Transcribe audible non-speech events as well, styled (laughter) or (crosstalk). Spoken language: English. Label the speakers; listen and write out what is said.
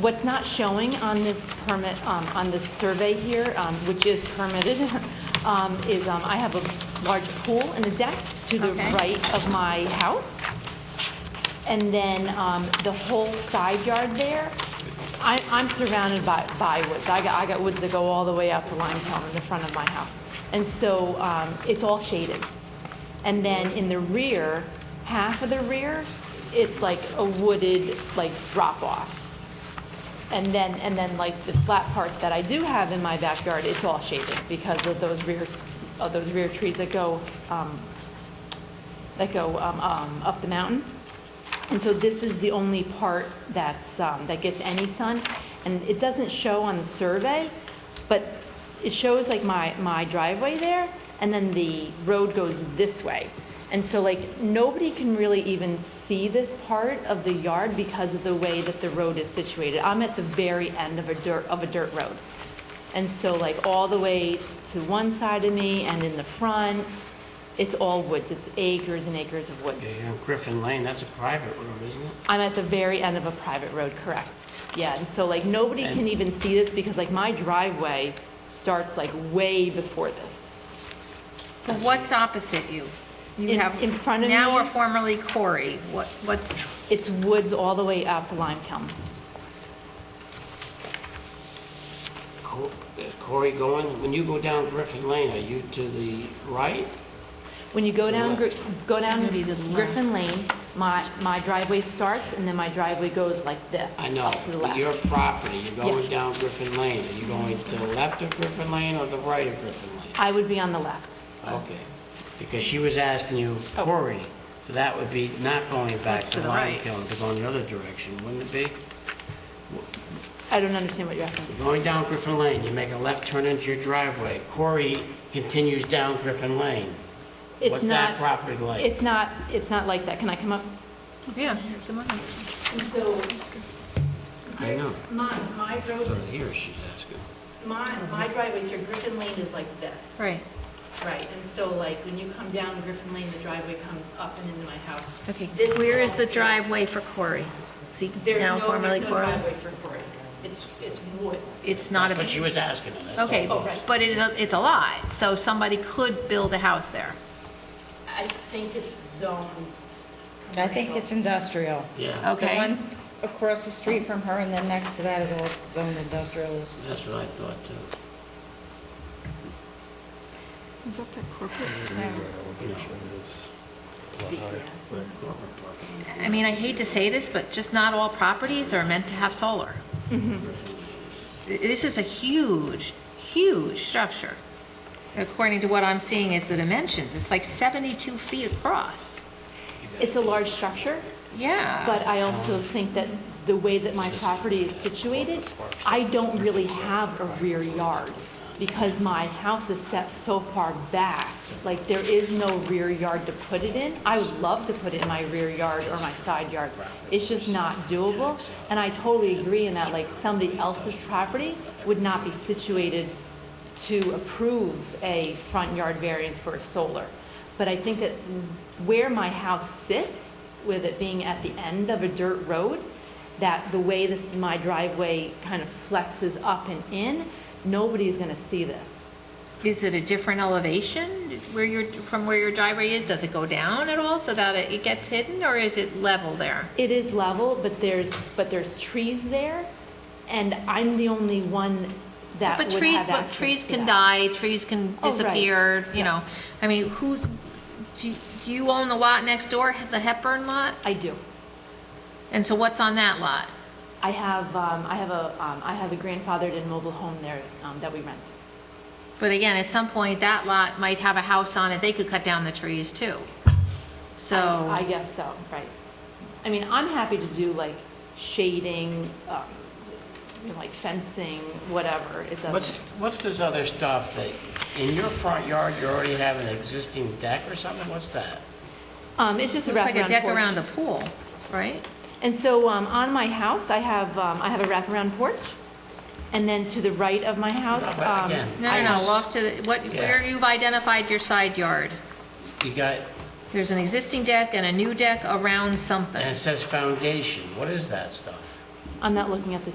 Speaker 1: what's not showing on this permit, um, on this survey here, um, which is permitted, (laughs) um, is um, I have a large pool in the deck to the
Speaker 2: Okay.
Speaker 1: right of my house. And then um, the whole side yard there, I- I'm surrounded by by woods. I got I got woods that go all the way out to Limetown in the front of my house. And so um, it's all shaded. And then in the rear, half of the rear, it's like a wooded, like, drop-off. And then, and then like the flat part that I do have in my backyard, it's all shaded because of those rear, of those rear trees that go, um, that go um, um, up the mountain. And so this is the only part that's, um, that gets any sun. And it doesn't show on the survey, but it shows like my, my driveway there, and then the road goes this way. And so like, nobody can really even see this part of the yard because of the way that the road is situated. I'm at the very end of a dirt, of a dirt road. And so like, all the way to one side of me and in the front, it's all woods. It's acres and acres of woods.
Speaker 3: Yeah, you're on Griffin Lane, that's a private road, isn't it?
Speaker 1: I'm at the very end of a private road, correct. Yeah, and so like, nobody can
Speaker 3: And-
Speaker 1: even see this because like my driveway starts like way before this.
Speaker 2: But what's opposite you? You
Speaker 1: In-
Speaker 2: have
Speaker 1: in front of
Speaker 2: Now
Speaker 1: me?
Speaker 2: or formerly Corey, what, what's,
Speaker 1: It's woods all the way out to Lime Kiln.
Speaker 3: Co- is Corey going, when you go down Griffin Lane, are you to the right?
Speaker 1: When you go down, Gri- go down
Speaker 2: Maybe to the left.
Speaker 1: Griffin Lane, my, my driveway starts and then my driveway goes like this.
Speaker 3: I know,
Speaker 1: up to the
Speaker 3: but
Speaker 1: left.
Speaker 3: your property, you're
Speaker 1: Yeah.
Speaker 3: going down Griffin Lane, are you going to the left of Griffin Lane or the right of Griffin Lane?
Speaker 1: I would be on the left.
Speaker 3: Okay, because she was asking you,
Speaker 1: Oh.
Speaker 3: Corey, so that would be not going back
Speaker 2: That's
Speaker 3: to
Speaker 2: to the
Speaker 3: Lime
Speaker 2: right.
Speaker 3: Kiln, to go in the other direction, wouldn't it be?
Speaker 1: I don't understand what you're asking.
Speaker 3: Going down Griffin Lane, you make a left turn into your driveway, Corey continues down Griffin Lane.
Speaker 1: It's
Speaker 3: What's that
Speaker 1: not,
Speaker 3: property like?
Speaker 1: it's not, it's not like that. Can I come up?
Speaker 2: yeah, come on.
Speaker 1: So
Speaker 3: I know.
Speaker 1: my, my
Speaker 3: So
Speaker 1: road,
Speaker 3: here she's asking.
Speaker 1: my, my driveway here, Griffin Lane is like this.
Speaker 2: Right,
Speaker 1: Right, and so like when you come down Griffin Lane, the driveway comes up and into my house.
Speaker 2: okay.
Speaker 1: This
Speaker 2: Where is
Speaker 1: all
Speaker 2: the
Speaker 1: here.
Speaker 2: driveway for Corey? See,
Speaker 1: There's
Speaker 2: now
Speaker 1: no,
Speaker 2: formerly
Speaker 1: there's no
Speaker 2: Corey?
Speaker 1: driveway for Cory. It's, it's woods.
Speaker 2: It's not
Speaker 3: But
Speaker 2: a,
Speaker 3: she was asking it. that's all.
Speaker 2: okay,
Speaker 1: Oh, right.
Speaker 2: but it's, a- it's a lot, so somebody could build a house there.
Speaker 1: I think it's zone
Speaker 4: I think it's industrial.
Speaker 3: Yeah,
Speaker 4: The
Speaker 2: Okay,
Speaker 4: one across the street from her and then next to that is all zoned industrial. is-
Speaker 3: that's what I thought too.
Speaker 5: Is that that corporate?
Speaker 2: I mean, I hate to say this, but just not all properties are meant to have solar.
Speaker 1: Mm-hmm.
Speaker 2: Th- This is a huge, huge structure. According to what I'm seeing is the dimensions, it's like 72 feet across.
Speaker 1: It's a large structure,
Speaker 2: Yeah.
Speaker 1: but I also think that the way that my property is situated, I don't really have a rear yard because my house is set so far back. Like, there is no rear yard to put it in. I would love to put it in my rear yard or my side yard. It's just not doable. And I totally agree in that, like, somebody else's property would not be situated to approve a front yard variance for a solar. But I think that where my house sits, with it being at the end of a dirt road, that the way that my driveway kind of flexes up and in, nobody's gonna see this.
Speaker 2: Is it a different elevation where your, from where your driveway is? Does it go down at all so that it it gets hidden, or is it level there?
Speaker 1: It is level, but there's, but there's trees there, and I'm the only one that
Speaker 2: But
Speaker 1: would
Speaker 2: trees,
Speaker 1: have
Speaker 2: but
Speaker 1: access
Speaker 2: trees
Speaker 1: to
Speaker 2: can
Speaker 1: that.
Speaker 2: die, trees can
Speaker 1: Oh, right.
Speaker 2: disappear, you
Speaker 1: Yeah.
Speaker 2: know? I mean, who, do you- do you own the lot next door, the Hepburn lot?
Speaker 1: I do.
Speaker 2: And so what's on that lot?
Speaker 1: I have, um, I have a, um, I have a grandfathered in mobile home there, um, that we rent.
Speaker 2: But again, at some point, that lot might have a house on it, they could cut down the trees too. So.
Speaker 1: I I guess so, right. I mean, I'm happy to do like shading, um, you know, like fencing, whatever, it
Speaker 3: What's,
Speaker 1: doesn't.
Speaker 3: what's this other stuff that, in your front yard, you already have an existing deck or something? What's that?
Speaker 1: Um, it's just a
Speaker 2: Looks like a deck
Speaker 1: wraparound
Speaker 2: around a
Speaker 1: porch.
Speaker 2: pool, right?
Speaker 1: And so, um, on my house, I have, um, I have a wraparound porch, and then to the right of my house,
Speaker 3: No, but
Speaker 1: um.
Speaker 3: again,
Speaker 2: No,
Speaker 1: I
Speaker 2: no,
Speaker 1: have-
Speaker 2: no, off to, the- what,
Speaker 3: Yeah.
Speaker 2: where you've identified your side yard.
Speaker 3: You got,
Speaker 2: There's an existing deck and a new deck around something.
Speaker 3: and it says foundation. What is that stuff?
Speaker 1: I'm not looking at the